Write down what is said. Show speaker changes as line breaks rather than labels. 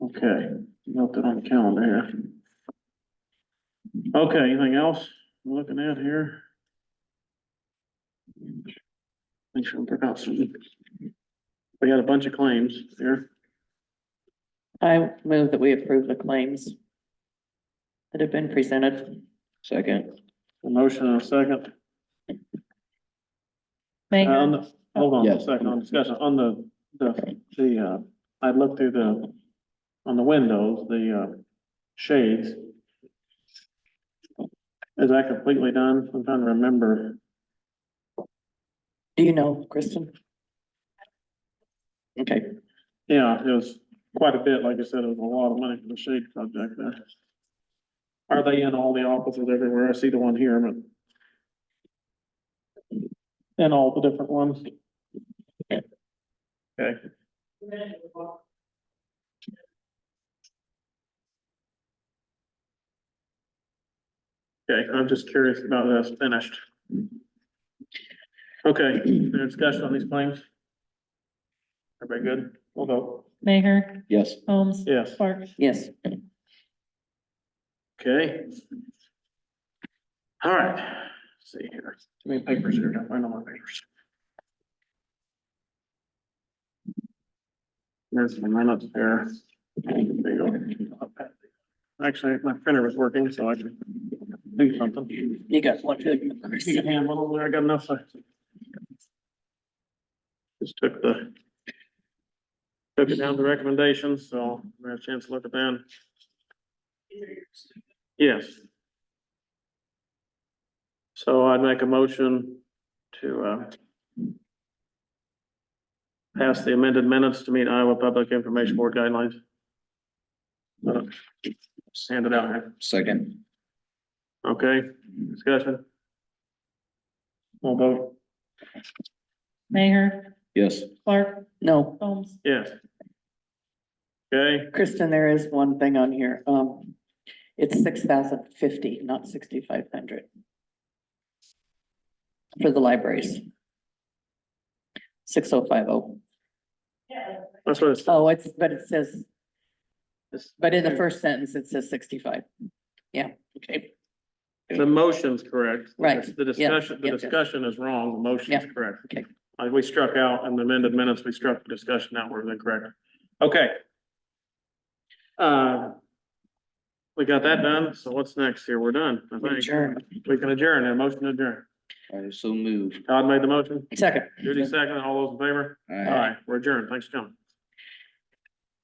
Okay, got that on the calendar here. Okay, anything else we're looking at here? Make sure I forgot something. We got a bunch of claims here.
I move that we approve the claims that have been presented. Second.
A motion and a second. On
Megan,
the- Hold on a
Yes.
second, on discussion, on the, the, the, uh, I looked through the, on the windows, the, uh, shades. Is that completely done? I'm trying to remember.
do you know, Kristen? Okay,
Yeah, it was quite a bit, like I said, it was a lot of money for the shade project there. Are they in all the offices everywhere? I see the one here, but. In all the different ones? Okay. Okay, I'm just curious about this finished. Okay, any discussion on these claims? Everybody good? We'll go.
Mayor,
Yes,
Holmes,
Yes.
Park.
yes,
Okay. All right, Let's see here, too many papers here, don't find all my papers. There's my minutes there. There you go. Actually, my printer was working, so I can do something. You
you got one.
can handle it over there, I got enough. I- Just took the. Took it down to recommendations, so I had a chance to look at that. Yes. So I'd make a motion to, uh, pass the amended minutes to meet Iowa Public Information Board guidelines. Uh, Hand it out here.
second.
Okay, discussion. All vote.
Mayor,
Yes,
Clark,
No,
Holmes,
Yes. Okay,
Kristen, there is one thing on here. Um, it's six thousand fifty, not sixty-five hundred. For the libraries. Six oh five oh.
that's what it's.
Oh, it's, but it says, but in the first sentence, it says sixty-five. Yeah, okay,
The motion's correct.
Right,
The discussion, the
yeah, yeah.
discussion is wrong, the motion's
Yeah,
correct.
okay.
Uh, we struck out in the amended minutes, we struck the discussion out, we're incorrect. Okay. Uh, we got that done, so what's next here? We're done, I think.
adjourn.
We can adjourn, a motion to adjourn.
I so moved.
Todd made the motion,
Second.
Judy second, all those in favor?
All right.
All right, we're adjourned, thanks for coming.